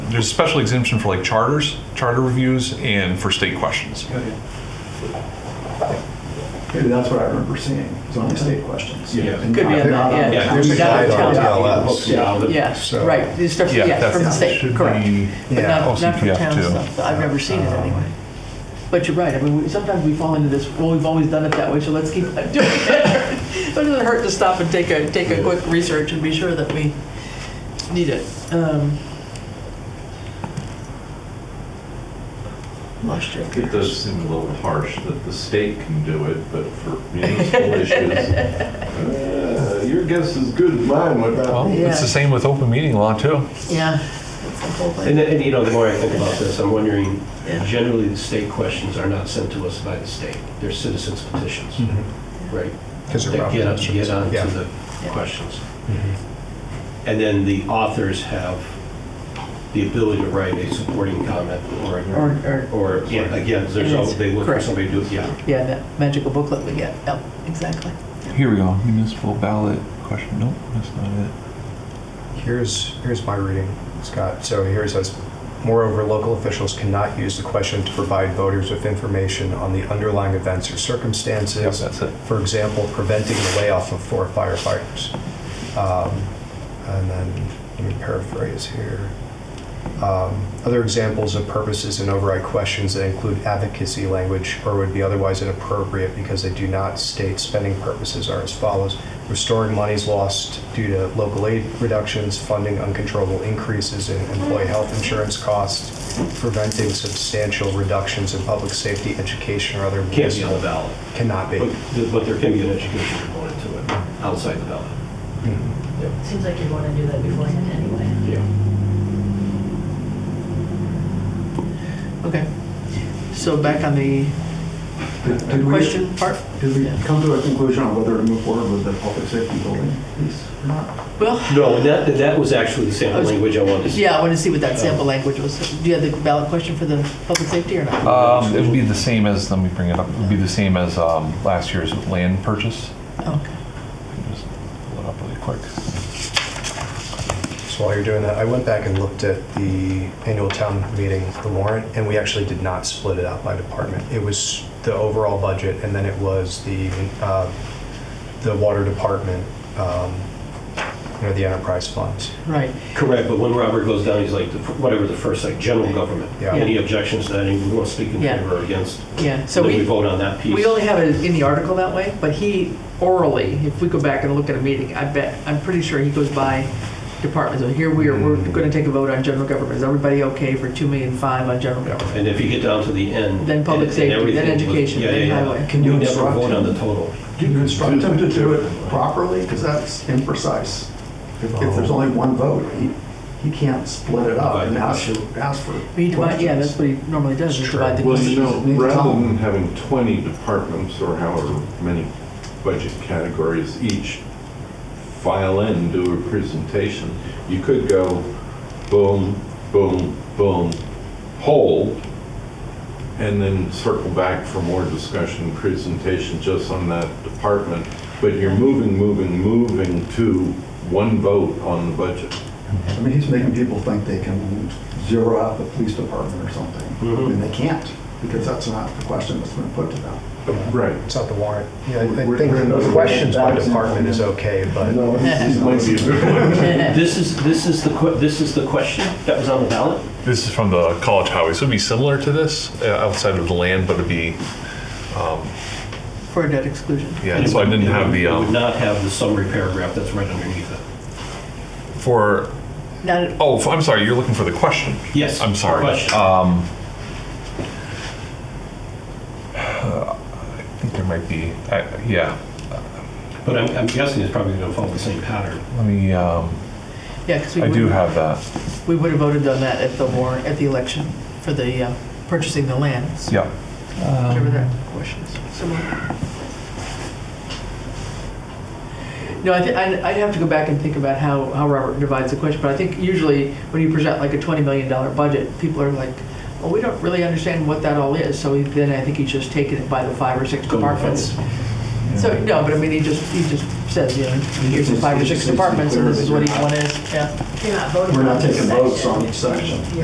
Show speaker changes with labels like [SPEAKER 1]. [SPEAKER 1] there's special exemption for like charters, charter reviews, and for state questions.
[SPEAKER 2] Maybe that's what I remember seeing, was on the state questions.
[SPEAKER 3] Yeah.
[SPEAKER 2] And
[SPEAKER 4] Could be
[SPEAKER 2] they're
[SPEAKER 4] on
[SPEAKER 2] not
[SPEAKER 4] that,
[SPEAKER 2] on-
[SPEAKER 4] yeah.
[SPEAKER 2] there's a
[SPEAKER 4] Not on
[SPEAKER 2] guide on
[SPEAKER 4] town.
[SPEAKER 2] the- Yeah.
[SPEAKER 4] Yes,
[SPEAKER 3] So-
[SPEAKER 4] right, it's stuff,
[SPEAKER 1] Yeah,
[SPEAKER 4] yeah,
[SPEAKER 1] that's-
[SPEAKER 4] from the
[SPEAKER 1] that
[SPEAKER 4] state,
[SPEAKER 1] should
[SPEAKER 4] correct.
[SPEAKER 1] be-
[SPEAKER 4] But
[SPEAKER 1] Yeah,
[SPEAKER 4] not, not from
[SPEAKER 1] OCPF
[SPEAKER 4] town
[SPEAKER 1] too. Oh.
[SPEAKER 4] stuff, I've never seen it anyway. But you're right, I mean, we- sometimes we fall into this, well, we've always done it that way, so let's keep doing it. But it doesn't hurt to stop and take a, take a quick research and be sure that we need it. Um, Lost you.
[SPEAKER 5] It does seem a little harsh that the state can do it, but for municipal issues, uh, your guess is good as mine, what
[SPEAKER 1] Well,
[SPEAKER 5] about?
[SPEAKER 1] it's the same with open meeting law too.
[SPEAKER 4] Yeah. That's the whole
[SPEAKER 3] And,
[SPEAKER 4] thing.
[SPEAKER 3] and, you know, the more I think about this, I'm wondering,
[SPEAKER 4] Yeah.
[SPEAKER 3] generally, the state questions are not sent to us by the state. They're citizens petitions, right?
[SPEAKER 6] Mm-hmm. Because they're
[SPEAKER 3] That get up,
[SPEAKER 6] Robinsons.
[SPEAKER 3] get on
[SPEAKER 6] Yeah.
[SPEAKER 3] to the questions. And then the authors have the ability to write a supporting comment or,
[SPEAKER 4] Or, or,
[SPEAKER 3] or, yeah, again, there's, al- they look for
[SPEAKER 4] Correct.
[SPEAKER 3] somebody to do it, yeah.
[SPEAKER 4] yeah, that magical booklet we get, yep, exactly.
[SPEAKER 1] Here we go, municipal ballot question, nope, that's not it.
[SPEAKER 6] Here's, here's my reading, Scott. So here it says, moreover, local officials cannot use the question to provide voters with information on the underlying events or
[SPEAKER 1] Yep,
[SPEAKER 6] circumstances.
[SPEAKER 1] that's it.
[SPEAKER 6] For example, preventing the layoff of four firefighters. Um, And then, let me paraphrase here. Um, Other examples of purposes and override questions that include advocacy language or would be otherwise inappropriate because they do not state spending purposes are as follows. Restoring monies lost due to local aid reductions, funding uncontrollable increases in employee health insurance costs, preventing substantial reductions in public safety, education, or other.
[SPEAKER 3] Can't be on the ballot,
[SPEAKER 6] Cannot be.
[SPEAKER 3] but, but there can be an education component to it, outside the ballot.
[SPEAKER 7] Seems like you'd want to do that beforehand anyway.
[SPEAKER 3] Yeah.
[SPEAKER 4] Okay. So back on the
[SPEAKER 2] Did- did we-
[SPEAKER 4] question part?
[SPEAKER 2] Did we
[SPEAKER 4] Yeah.
[SPEAKER 2] come to a conclusion on whether to move forward with the public safety building piece or not?
[SPEAKER 4] Well,
[SPEAKER 3] No, and that, that was actually the sample
[SPEAKER 4] I was-
[SPEAKER 3] language I wanted to see.
[SPEAKER 4] yeah, I want to see what that sample language was. Do you have the ballot question for the public safety or not?
[SPEAKER 1] Um, it would be the same as, let me bring it up, it would be the same as, um, last year's land purchase.
[SPEAKER 4] Okay.
[SPEAKER 1] Just pull it up really quick.
[SPEAKER 6] So while you're doing that, I went back and looked at the annual town meeting, the warrant, and we actually did not split it out by department. It was the overall budget, and then it was the, uh, the water department, um, you know, the enterprise funds.
[SPEAKER 4] Right.
[SPEAKER 3] Correct, but when Robert goes down, he's like, the f- whatever the first, like, general government.
[SPEAKER 6] Yeah.
[SPEAKER 3] Any objections to that, and we want to speak in
[SPEAKER 4] Yeah.
[SPEAKER 3] favor or against?
[SPEAKER 4] Yeah. So
[SPEAKER 3] Then we
[SPEAKER 4] we,
[SPEAKER 3] vote on that piece.
[SPEAKER 4] we only have it in the article that way, but he orally, if we go back and look at a meeting, I bet, I'm pretty sure he goes by departments. So here we are, we're going to take a vote on general government. Is everybody okay for two million five on general government?
[SPEAKER 3] And if you get down to the end.
[SPEAKER 4] Then
[SPEAKER 3] and-
[SPEAKER 4] public
[SPEAKER 3] and
[SPEAKER 4] safety, then
[SPEAKER 3] everything was-
[SPEAKER 4] education,
[SPEAKER 3] yeah,
[SPEAKER 4] then
[SPEAKER 3] yeah, yeah.
[SPEAKER 4] highway.
[SPEAKER 2] Can you
[SPEAKER 3] We never
[SPEAKER 2] instruct
[SPEAKER 3] vote on
[SPEAKER 2] him?
[SPEAKER 3] the total.
[SPEAKER 2] Do you instruct him to do it properly? Because that's imprecise. If if there's only one vote, he, he can't split it up and ask, ask for
[SPEAKER 4] He divide- Yeah, that's
[SPEAKER 2] questions.
[SPEAKER 4] what he normally does, is divide the
[SPEAKER 5] Well, you
[SPEAKER 4] question.
[SPEAKER 5] know, rather than having 20 departments or however many budget categories each file in, do a presentation, you could go boom, boom, boom, hold, and then circle back for more discussion, presentation just on that department. But you're moving, moving, moving to one vote on the budget.
[SPEAKER 2] I mean, he's making people think they can zero out the police department or something. I
[SPEAKER 4] Mm-hmm.
[SPEAKER 2] mean, they can't, because that's not the question that's been put to them.
[SPEAKER 5] Right.
[SPEAKER 6] It's not the warrant. Yeah, I I
[SPEAKER 2] We're-
[SPEAKER 6] think
[SPEAKER 2] we're-
[SPEAKER 6] the questions by department is okay, but.
[SPEAKER 2] No, he's-
[SPEAKER 5] Might be a good one.
[SPEAKER 3] This is, this is the, que- this is the question that was on the ballot?
[SPEAKER 1] This is from the college highway, so it'd be similar to this, uh, outside of the land, but it'd be,
[SPEAKER 4] For a debt exclusion.
[SPEAKER 1] yeah, so I didn't have the,
[SPEAKER 3] It would
[SPEAKER 1] um,
[SPEAKER 3] not have the summary paragraph that's right underneath it.
[SPEAKER 1] for,
[SPEAKER 4] Not at
[SPEAKER 1] oh, f- I'm sorry, you're looking for the question.
[SPEAKER 3] Yes.
[SPEAKER 1] I'm sorry.
[SPEAKER 3] Question.
[SPEAKER 1] Um, I think there might be, I, yeah,
[SPEAKER 3] But I'm, I'm guessing it's probably gonna follow the same pattern.
[SPEAKER 1] let me, um,
[SPEAKER 4] Yeah, because we
[SPEAKER 1] I do
[SPEAKER 4] would,
[SPEAKER 1] have that.
[SPEAKER 4] we would have voted on that at the warrant, at the election for the uh, purchasing the lands.
[SPEAKER 1] Yeah.
[SPEAKER 4] Whatever that question is. Similar. No, I think, I'd I'd have to go back and think about how, how Robert divides the question, but I think usually when you present like a $20 million budget, people are like, well, we don't really understand what that all is, so he- then I think he's just taken it by the five or six
[SPEAKER 3] Go to the
[SPEAKER 4] departments. So, no, but I mean, he just, he just says, you know, here's the five or six
[SPEAKER 2] He just needs to be
[SPEAKER 4] departments, and this is
[SPEAKER 2] clear
[SPEAKER 4] what
[SPEAKER 2] that you're
[SPEAKER 4] each one
[SPEAKER 2] not-
[SPEAKER 4] is, yeah.
[SPEAKER 7] You're not voting
[SPEAKER 2] We're
[SPEAKER 7] on
[SPEAKER 2] not
[SPEAKER 7] each
[SPEAKER 2] taking votes on each
[SPEAKER 7] section.
[SPEAKER 2] section.